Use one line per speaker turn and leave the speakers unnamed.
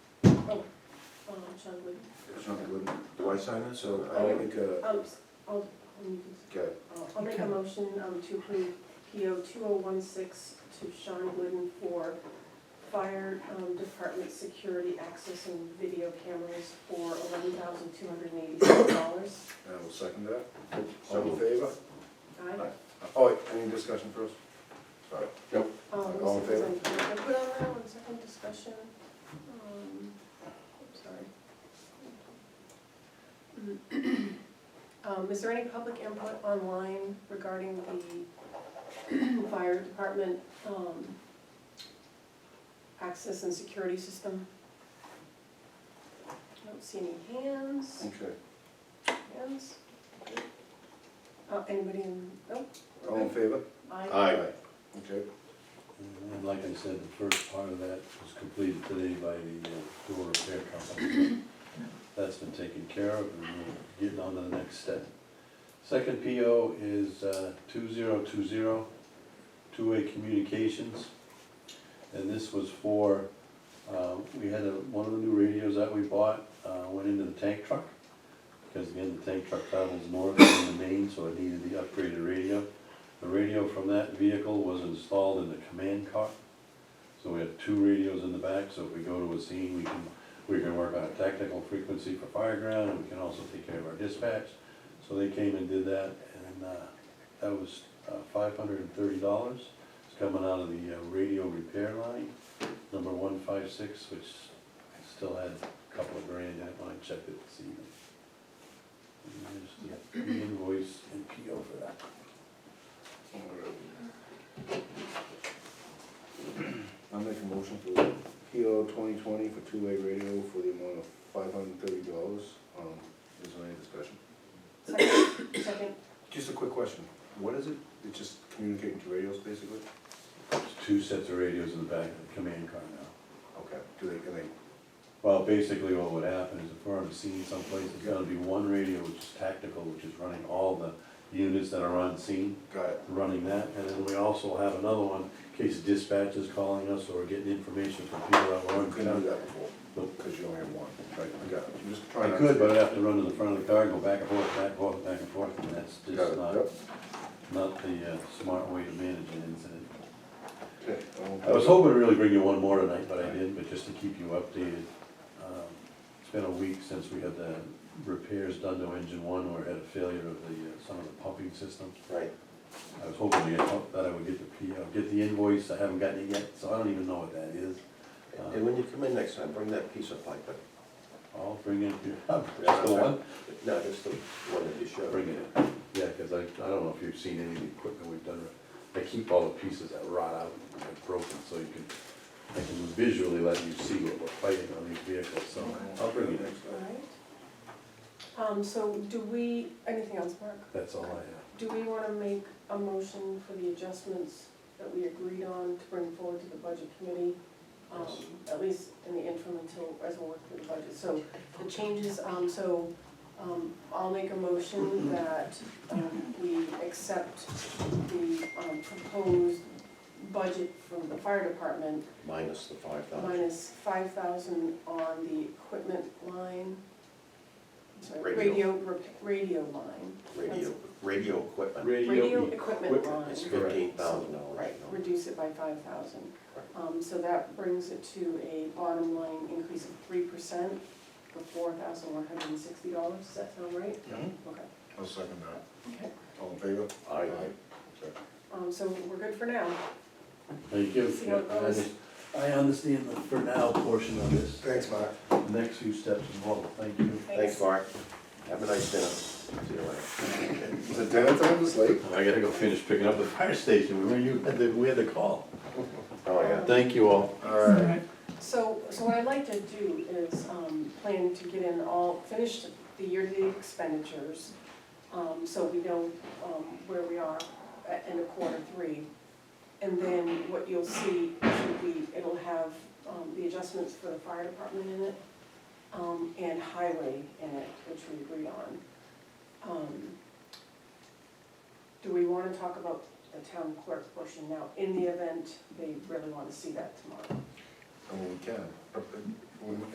Oh, uh, Sean Wood.
Sean Goodman. Do I sign this, or
Oh.
I make a,
Um, s- I'll, um, you can-
okay,
I'll- I'll make a motion um, to approve PO two oh one six to Sean Wooden for fire um, department security access and video cameras for eleven thousand two hundred and eighty-six dollars.
and I will second that. All in favor?
Aye.
Oh, wait, any discussion first? Sorry.
Um,
All in
this is on- can I put on that one second discussion. Um, I'm sorry. Um, is there any public input online regarding the fire department, um, access and security system? I don't see any hands,
Okay,
hands. Uh, anybody in, nope,
all in favor?
I,
Aye.
Okay,
And like I said, the first part of that was completed today by the uh, door repair company. That's been taken care of and we're getting on to the next step. Second PO is uh, two zero two zero, two-way communications. And this was for, uh, we had a- one of the new radios that we bought, uh, went into the tank truck. Because again, the tank truck travels north in the main, so it needed the upgraded radio. The radio from that vehicle was installed in the command car. So we have two radios in the back, so if we go to a scene, we can, we can work on a tactical frequency for fire ground, and we can also take care of our dispatch. So they came and did that, and, uh, that was uh, five hundred and thirty dollars. It's coming out of the uh, radio repair line, number one five six, which I still had a couple of grand in it when I checked it this evening. And there's the uh, invoice and PO for that.
I'll make a motion for PO twenty twenty for two-way radio for the amount of five hundred and thirty dollars. Um, is there any discussion?
second, second,
Just a quick question, what is it? It's just communicating to radios, basically?
There's two sets of radios in the back of the command car now.
Okay, do they, can they,
Well, basically what would happen is if we're on scene someplace, it's gonna be one radio which is tactical, which is running all the units that are on scene,
got it,
running that, and then we also have another one in case dispatch is calling us or we're getting information from people that were
you
on.
couldn't do
ground.
that before,
Nope.
because you only have one, right, I got it, I'm just
I
trying to.
could, but I'd have to run to the front of the car, go back and forth, back and forth, back and forth, and that's
Got
just
it,
not,
yep.
not the uh, smart way to manage an incident.
Okay, all in
I was
favor?
hoping to really bring you one more tonight, but I didn't, but just to keep you updated. um, It's been a week since we had the repairs done to engine one, where it had a failure of the, uh, some of the pumping systems.
Right,
I was hoping to get, oh, that I would get the, P- uh, get the invoice, I haven't gotten it yet, so I don't even know what that is.
And when you come in next time, bring that piece of pipe, but,
I'll bring it, that's the one,
no, just the one that you showed.
bring it in. Yeah, because I, I don't know if you've seen any of the equipment we've done, I keep all the pieces that rot out and are broken, so you can, I can visually let you see what we're fighting on these vehicles, so I'll bring it in.
all right. Um, so do we, anything else, Mark?
That's all I have.
Do we wanna make a motion for the adjustments that we agreed on to bring forward to the budget committee? Um, at least in the interim until, as we work through the budget, so the changes, um, so, um, I'll make a motion that, um, we accept the, um, proposed budget from the fire department
Minus the five thousand.
minus five thousand on the equipment line. I'm Sorry,
Radio.
radio, rep- radio line.
Radio, radio equipment,
Radio equipment
equipment.
line.
it's fifteen thousand dollars.
Right, reduce it by five thousand. Um, so that brings it to a bottom line increase of three percent for four thousand one hundred and sixty dollars, does that sound right?
Mhm.
Okay,
I'll second that.
okay,
All in favor?
Aye.
Okay.
um, so we're good for now.
Thank you.
See how it goes.
I understand the for now portion of this,
Thanks, Mark.
The next few steps involved, thank you.
Thanks, Mark. Have a nice dinner. See you later.
Is it dinner time this late?
I gotta go finish picking up the fire station, remember you, had the- we had the call.
Oh,
Um,
yeah.
Thank you all.
All right.
So, so what I'd like to do is, um, plan to get in all, finish the year-to-date expenditures, um, so we know, um, where we are at end of quarter three. And then what you'll see should be, it'll have, um, the adjustments for the fire department in it, um, and highway in it, which we agreed on. Um, Do we wanna talk about the town clerk portion now, in the event they really wanna see that tomorrow?
I mean, we can, but, uh, we-